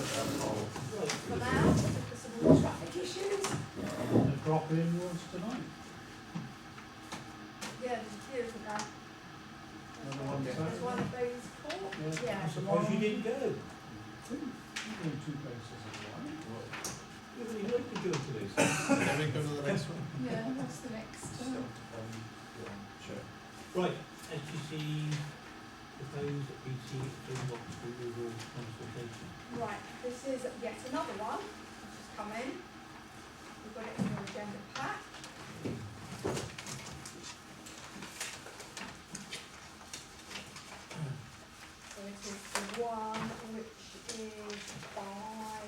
For now, because of all the traffic issues. The drop in was tonight, Yeah, there's a few of them. another one There's one of Saturday. those four, I yeah. suppose you didn't go. two, you've been two places in You really like to go to this. Can we go to the next one? Yeah, what's the next one? Right, SGC proposed BT inbox removal consultation. Right, this is yet another one, which has come in. We've got it in your agenda pack. So it is the one which is by,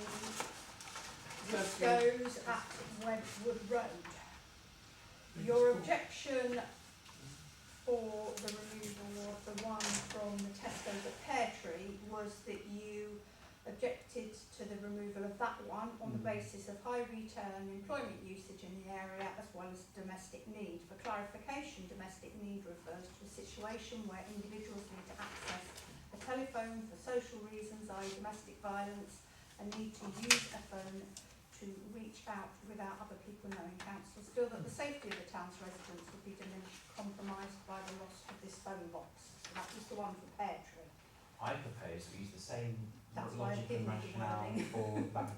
which goes at Wentworth Road. Your objection for the removal of the one from the Tesco's at Pear Tree was that you objected to the removal of that one on the Mm. basis of high return employment usage in the area as well as domestic need. For clarification, domestic need refers to a situation where individuals need to access a telephone for social reasons, i.e. domestic violence, and need to use a phone to reach out without other people knowing council still that the safety of the town's residents would be diminished, compromised by the loss of this phone box. So that was the one for Pear Tree. I propose we use the same That's why I logic didn't and do rationale anything. for that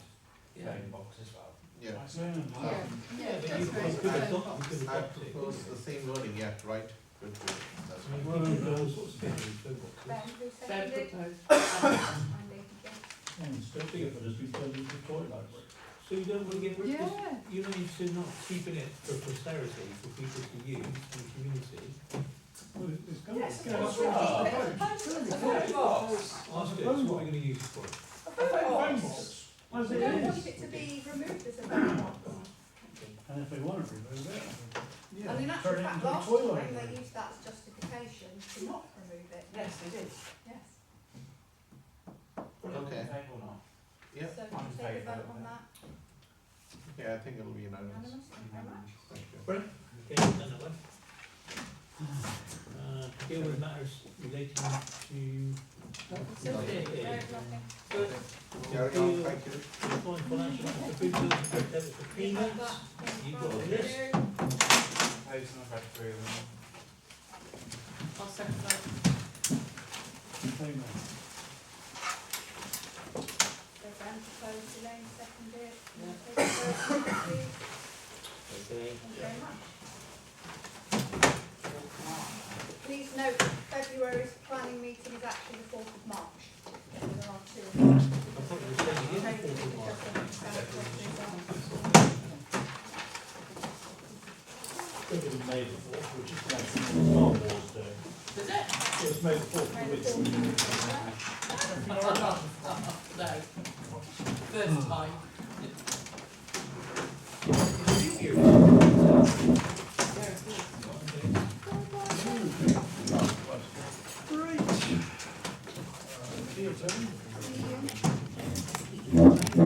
phone box as well. Yeah. Wales, isn't it? Yeah. Yeah, yeah, but that's you right. could have So- done, you could I have adopted it. propose the same wording, yeah, right, good, good, that's I mean, right. people do all sorts of things with phone Ben, boxes. who seconded? Andy, yeah. And still think of it as we turned into toilet So you don't want to get rid of this? Yeah, You need to not keeping it for posterity, for people to use in the community. Well, it's- it's gonna. Yes, of yeah, course that's we right. keep it. It's gonna be Of toilet. course. Ask it, what are we going to use it for? A phone Phone box. box, as We it don't want is, it to be removed as a phone box. and if they want to remove it, And in yeah, actual turn it fact, into a last toilet. time they used that as justification to not remove it. Yes, it is. Yes. Okay. or not? Yeah. So can you take a vote on that Yeah, I think it'll be unanimous, unanimously? Thank you very much. thank you. Okay, done that one. Uh, deal with matters relating to. Okay. No, Yeah. nothing. Carry on, thank Fine, you. uh, financial, the food bills, the debit for You've got payments. that in You've got front of this. you. Propose and I've read through them. I'll second that. Amen. So Ben proposed, Elaine seconded. Take a vote, please. Okay. Thank you very much. Please note, February's planning meeting is actually the fourth of March. There are two. of them. I thought you were saying it is the Change it fourth of March. because of the South West Reserve. It was made before, which is like Star Wars Day. Is it? It was made before, Right, which the fourth of March. No, first time. Uh,